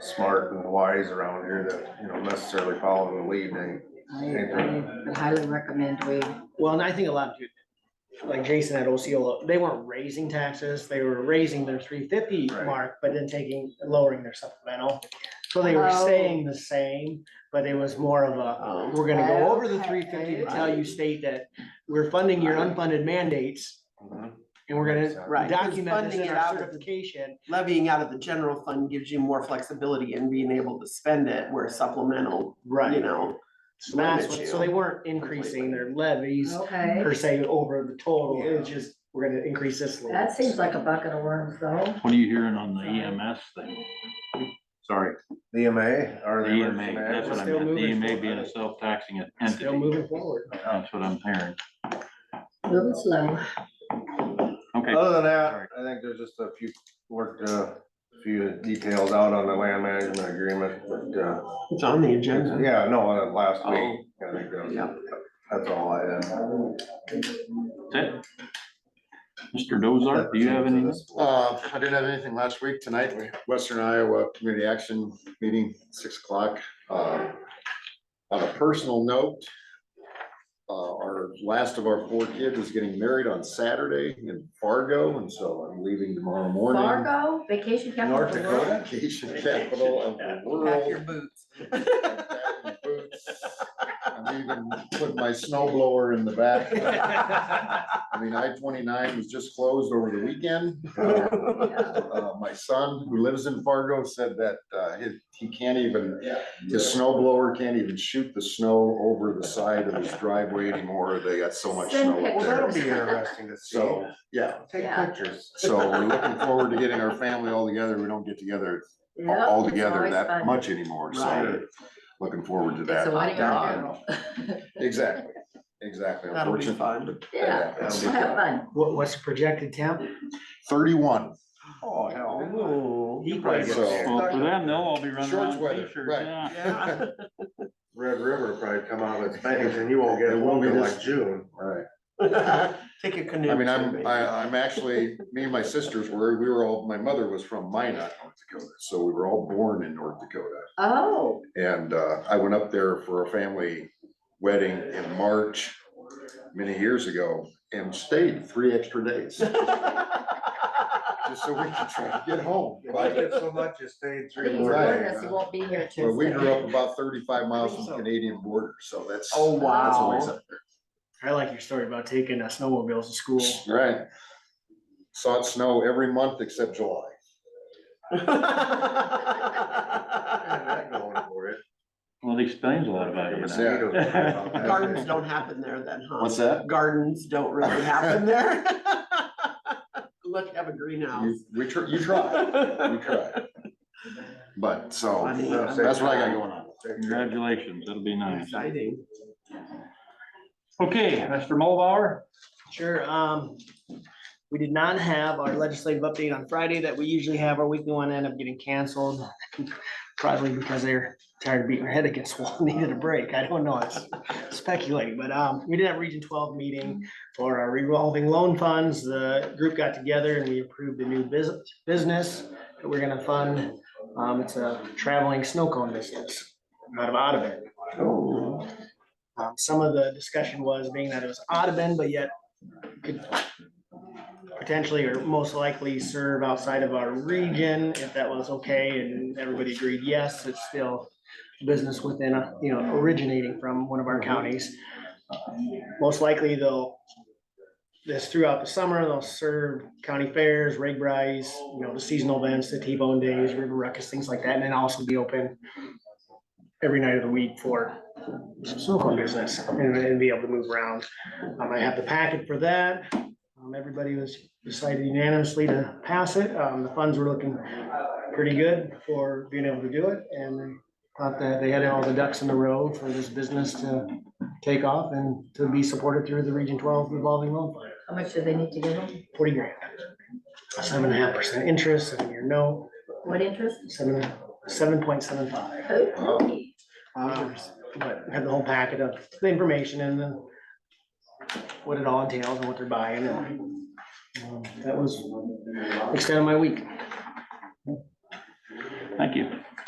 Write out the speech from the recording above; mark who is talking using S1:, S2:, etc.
S1: smart and wise around here that, you know, necessarily follow the lead, they,
S2: I, I would highly recommend we,
S3: Well, and I think a lot too, like Jason at Osceola, they weren't raising taxes, they were raising their three fifty
S1: Right.
S3: mark, but then taking, lowering their supplemental. So they were
S2: Oh.
S3: staying the same, but it was more of a, we're gonna go over the
S2: Okay.
S3: three fifty to tell you state that we're funding your unfunded mandates
S1: Mhm.
S3: and we're gonna
S4: Right.
S3: document this
S4: Funding
S3: in
S4: it
S3: our
S4: out of the-
S3: certification.
S4: levying out of the general fund gives you more flexibility in being able to spend it where supplemental, you know.
S3: So that's
S4: limits
S3: what,
S4: you.
S3: so they weren't increasing their levies
S2: okay,
S3: per se over the total, it's
S4: Yeah.
S3: just, we're gonna increase this a little.
S2: that seems like a bucket of worms though.
S5: What are you hearing on the EMS thing? Sorry,
S1: The EMA or
S5: the
S1: the.
S5: EMA, that's what I
S3: Still
S5: meant, the
S3: moving
S5: EMA
S3: forward.
S5: being a self-taxing
S3: Still
S5: entity,
S3: moving forward.
S5: that's what I'm hearing.
S2: Moving slow.
S5: Okay,
S1: Other than that, I think there's just a few, worked uh, a few details out on the land management agreement, but, uh,
S4: It's on the agenda.
S1: yeah, no, uh, last week.
S4: Oh.
S1: I think that
S4: Yeah.
S1: was- That's all I had.
S3: Oh.
S5: that's it. Mr. Dozart, do you have any?
S6: Uh, I didn't have anything last week. Tonight, we Western Iowa Community Action Meeting, six o'clock. Uh, On a personal note, uh, our last of our four kids is getting married on Saturday in Fargo, and so I'm leaving tomorrow morning.
S2: Fargo, vacation capital
S6: North
S2: of the
S6: Dakota,
S2: world.
S6: vacation capital of the
S4: Pack your
S6: world.
S4: boots.
S6: I'm even put my snow blower in the back. I mean, I twenty-nine was just closed over the weekend. Uh, My son, who lives in Fargo, said that uh, he- he can't even, his snow blower can't even shoot the snow over the side of his driveway anymore. They got so much
S2: Send
S6: snow up
S1: Well,
S6: there.
S1: that'll be interesting to see.
S6: So, yeah,
S1: Take
S2: Yeah.
S1: pictures.
S6: so we're looking forward to getting our family all together. We don't get together
S2: Yep,
S6: all
S2: it's
S6: together
S2: always
S6: that
S2: fun.
S6: much anymore,
S4: Right.
S6: so looking forward to
S2: It's
S6: that.
S2: a one year
S6: Yeah.
S2: general.
S6: Exactly, exactly.
S4: That'll be
S6: Unfortunately,
S4: fun.
S2: Yeah,
S6: yeah, it's-
S2: we'll have fun.
S3: What, what's the projected temp?
S6: Thirty-one.
S1: Oh, hell.
S3: He
S1: probably
S3: plays-
S1: get
S6: So-
S5: Well, for them, they'll all be running
S6: Shorts
S5: around in
S6: weather,
S5: t-shirts,
S6: right.
S5: yeah.
S4: Yeah.
S1: Red River will probably come out of its banks and you won't get
S6: It
S1: it
S6: won't be
S1: until
S6: this-
S1: like June.
S6: Right.
S4: Take a canoe.
S6: I mean, I'm,
S4: maybe.
S6: I, I'm actually, me and my sisters were, we were all, my mother was from Minot, North Dakota, so we were all born in North Dakota.
S2: Oh,
S6: And, uh, I went up there for a family wedding in March many years ago and stayed three extra days, just so we could try to get home.
S1: You liked
S6: But
S1: it so much, you stayed three
S2: please
S1: more
S2: warn
S1: days.
S2: us, you won't be here Tuesday.
S6: but we grew up about thirty-five miles from the Canadian border, so that's.
S4: Oh,
S6: that's always
S4: wow.
S6: up there.
S3: I like your story about taking uh, snowmobiles to school.
S6: Right. Saw it snow every month except July.
S1: Yeah, that going for it.
S5: Well, it explains a lot about you. now.
S1: Mosquitoes
S5: Yeah.
S1: about that.
S4: Gardens don't happen there then, huh?
S6: What's that?
S4: Gardens don't really happen there. Unless you have a greenhouse.
S6: You- We try, you try, we try. But so,
S4: Funny.
S6: that's what I got going on.
S5: Congratulations, that'll be nice.
S4: Exciting.
S5: Okay, Mr. Mulbauer?
S3: Sure, um, we did not have our legislative update on Friday that we usually have. Our weekly one ended up getting canceled. Probably because they're tired of beating their head against the wall, needed a break. I don't know, it's speculating, but, um, we did have Region twelve meeting for our revolving loan funds. The group got together and we approved a new business, business that we're gonna fund. Um, it's a traveling snow cone business out of Audubon. Um, some of the discussion was being that it was Audubon, but yet could potentially or most likely serve outside of our region, if that was okay, and everybody agreed, yes, it's still business within, uh, you know, originating from one of our counties. Most likely, they'll, this throughout the summer, they'll serve county fairs, rig rides, you know, the seasonal events, the T-bone days, river ruckus, things like that, and then also be open every night of the week for snow cone business, and then be able to move around. Um, I have the packet for that. Um, everybody was decided unanimously to pass it. Um, the funds were looking pretty good for being able to do it and they thought that they had all the ducks in a row for this business to take off and to be supported through the Region twelve revolving loan fund,
S2: How much do they need to give them?
S3: forty grand. Seven and a half percent interest, seven year note,
S2: What interest?
S3: seven, seven point seven five.
S2: Oh,
S3: Um, But have the whole packet of the information and the, what it all entails and what they're buying and. um, That was extent of my week.
S5: Thank you.